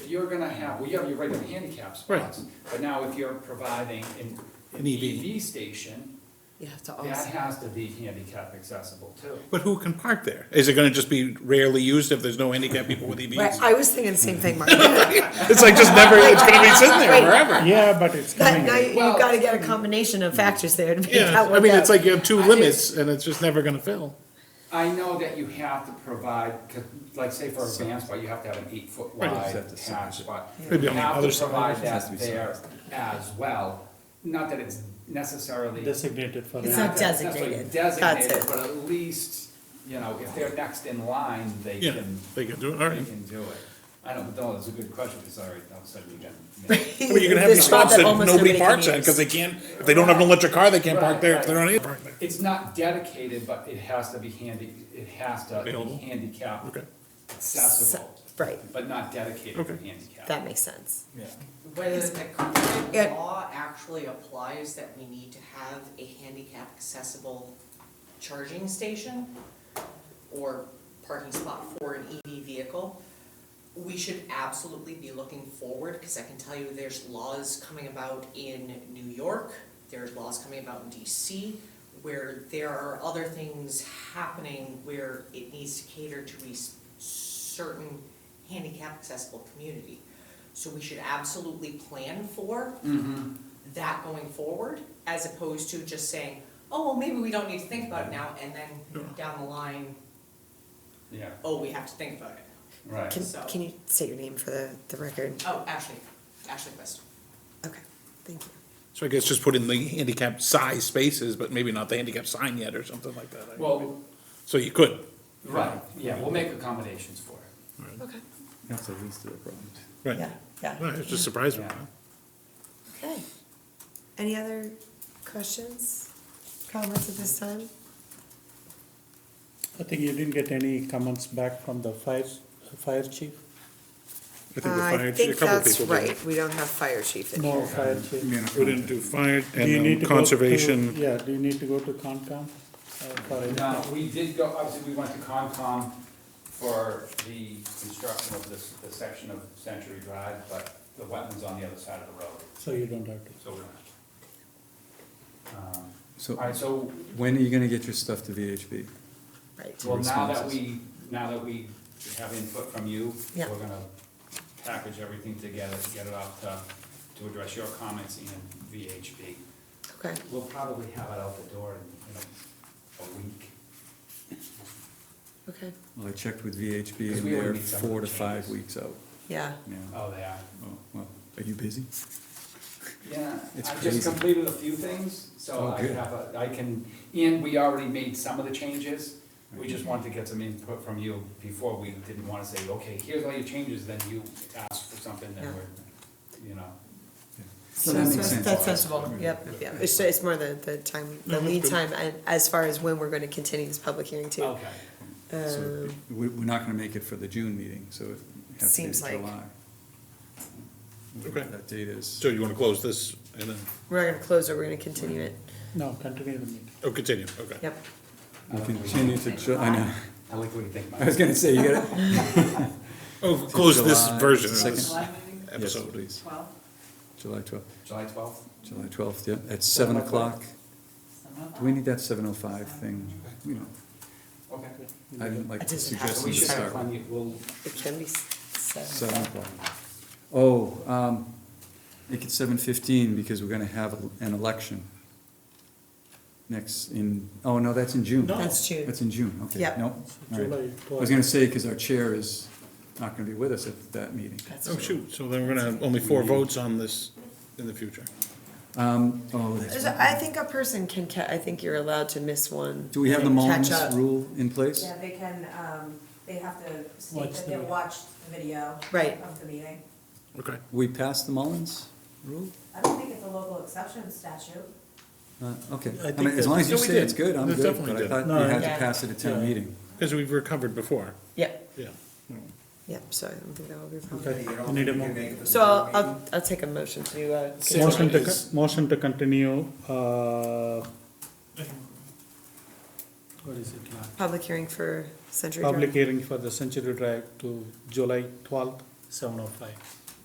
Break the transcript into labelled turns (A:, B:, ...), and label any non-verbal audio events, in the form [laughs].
A: you're gonna have, well, you have your regular handicap spots, but now if you're providing an, an
B: An E EV.
A: EV station,
C: You have to
A: that
C: also,
A: has to be handicap accessible too.
B: But who can park there? Is it gonna just be rarely used if there's no handicap people with
C: right,
B: EVs?
C: I was thinking the same thing, [laughs] Mark. That
B: It's like just never, it's gonna be sitting there
C: Wait.
B: forever.
D: Yeah, but it's coming.
C: now you've
A: Well-
C: gotta get a combination of factors there to make
B: Yeah,
C: that work
B: I mean, it's
C: out.
B: like you have two
A: I-
B: limits and it's just never gonna fill.
A: I know that you have to provide, c- like say for a van spot, you have to have an eight foot
B: Right,
A: wide
B: it's
D: at the
A: hatch spot.
B: Maybe on the other side,
A: You have to
B: it
A: provide
B: has to
A: that
B: be
A: there as well, not that it's necessarily.
D: Designated for
C: It's
D: that.
A: that
C: not
A: it's necessarily
C: designated.
A: Designated,
C: That's it.
A: but at least, you know, if they're next in line, they
B: Yeah,
A: can,
B: they can do it, all
A: they
B: right.
A: can do it. I don't know, it's a good question, because all right, all of a sudden you got.
B: [laughs] I mean, you're gonna have
C: This
B: these
C: spot
B: spots that
C: almost
B: nobody
C: can
B: parks at,
C: use.
B: cause they can't, if they don't have an electric car, they can't park
A: Right,
B: there, if
A: right.
B: they're not able to park there.
A: It's not dedicated, but it has to be handy, it has to be
B: Available.
A: handicap
B: Okay,
A: accessible,
C: Right,
A: but not dedicated to
B: Okay.
A: handicap.
C: that makes sense.
E: Whether the
C: Yeah.
E: current law actually applies that we need to have a handicap accessible charging station or parking spot for an EV vehicle, we should absolutely be looking forward, because I can tell you there's laws coming about in New York, there's laws coming about in DC, where there are other things happening where it needs to cater to a s- certain handicap accessible community. So we should absolutely plan for that going forward, as opposed to just saying, oh, well, maybe we don't need to think about it now, and then down the line,
A: Yeah,
E: oh, we have to think about it.
A: right.
C: Can, can you state your name for the, the record?
E: Oh, Ashley, Ashley Quest.
C: Okay, thank you.
B: so I guess just put in the handicap size spaces, but maybe not the handicap sign yet or something like that.
A: Well,
B: So you could,
A: right, yeah, we'll make accommodations for it.
C: Okay.
D: That's the least of the problems.
B: right,
C: Yeah,
B: No,
C: yeah.
B: it's just surprising,
A: Yeah.
B: huh?
C: Okay. Any other questions, comments at this time?
D: I think you didn't get any comments back from the fire, fire chief?
B: I think the fire, a couple
C: Uh, that's
B: people did.
C: right, we don't have fire chief in
D: No,
C: here.
D: fire chief.
B: We didn't do fire
D: Do you need
B: and um,
D: to go to-
B: conservation,
D: Yeah, do you need to go to Concom? Uh, for it?
A: Now, we did go, obviously, we went to Concom for the construction of this, the section of Century Drive, but the wetlands on the other side of the road,
D: So you don't have to.
A: so we're not. Um, All
F: So
A: right, so,
F: when are you gonna get your stuff to VHB?
C: Right,
A: well, now that
F: Responses.
A: we, now that we have input from you, we're
C: Yeah.
A: gonna package everything together, get it out to, to address your comments and VHB.
C: okay,
A: We'll probably have it out the door in, you know, a week.
C: okay,
F: Well, I checked with VHB
A: Because
F: and
A: we already
F: they're
A: need some
F: four to five
A: changes.
F: weeks out
C: yeah.
F: now.
A: Oh, they are.
F: Oh, well, are you busy?
A: Yeah,
F: It's
A: I
F: crazy.
A: just completed a few things, so
F: Oh,
A: I
F: good.
A: have a, I can, and we already made some of the changes. We just wanted to get some input from you before we didn't wanna say, okay, here's all your changes, then you ask for something that
C: Yeah.
A: we're, you know.
F: So that makes sense.
C: That's sensible, yep, yep, it's, it's more the, the time, the lead time, and as far as when we're gonna continue this public hearing
F: Oh.
C: too.
A: Okay,
F: So we, we're not gonna make it for the June meeting, so it has to be
C: Seems like-
F: July.
B: Okay.
F: That date is,
B: so you wanna close this and then,
C: We're not gonna close it, we're gonna continue it,
D: No, continue the meeting.
B: oh, continue, okay.
C: yep.
F: we continue to Ju, I know, [laughs]
A: I like what you think, Mike.
F: I was gonna say, you gotta.
B: Oh, [laughs] close this
F: July
B: version of
F: second.
B: this
E: meeting,
F: Yes,
B: episode.
F: please, July twelfth,
A: July twelfth?
F: July twelfth, yeah, at seven o'clock. Do we need that seven oh five thing? You know,
A: Okay.
F: I didn't like
C: It
F: the
C: doesn't have to
A: So
F: suggestion
A: we
F: to
A: should have
F: start with.
A: plenty, of- we'll,
C: It can be s- seven,
F: Seven o'clock. Oh, um, make it seven fifteen because we're gonna have an election. Next in, oh, no, that's in June.
C: that's June,
F: That's in June, okay.
C: Yep.
F: No, all right.
D: July
F: I was gonna say, cause our chair is not gonna be with us at that meeting.
C: that's
B: Oh,
C: June.
B: shoot, so then we're gonna have only four votes on this in the future.
F: Um, oh, that's,
C: There's a- I think a person can ca- I think you're allowed to miss one.
F: do we have the
C: and catch up.
F: Mullins rule in place?
G: Yeah, they can, um, they have to state
D: Watch
G: that
D: the
G: they
D: video.
G: watched the video.
C: Right.
G: Of the meeting.
B: Okay,
F: We passed the Mullins rule?
G: I don't think it's a local exception statute.
F: Uh, okay,
D: I
F: I
D: think
F: mean, as long as you
B: that- No, we
F: say it's
B: did.
F: good, I'm
B: That
F: good,
B: definitely
F: but I
B: did.
F: thought you
D: No, I-
F: had to
C: Yeah.
F: pass it at town
D: Yeah.
F: meeting.
B: because we've recovered before,
C: Yep,
B: yeah.
C: yep, so I don't think that will be a problem.
D: Okay, you need a mo-
C: So I'll, I'll, I'll take a motion to, uh,
D: motion to, con- motion to continue, uh, what is it now?
C: public hearing for Century Drive.
D: Public hearing for the Century Drive to July twelfth seven oh five.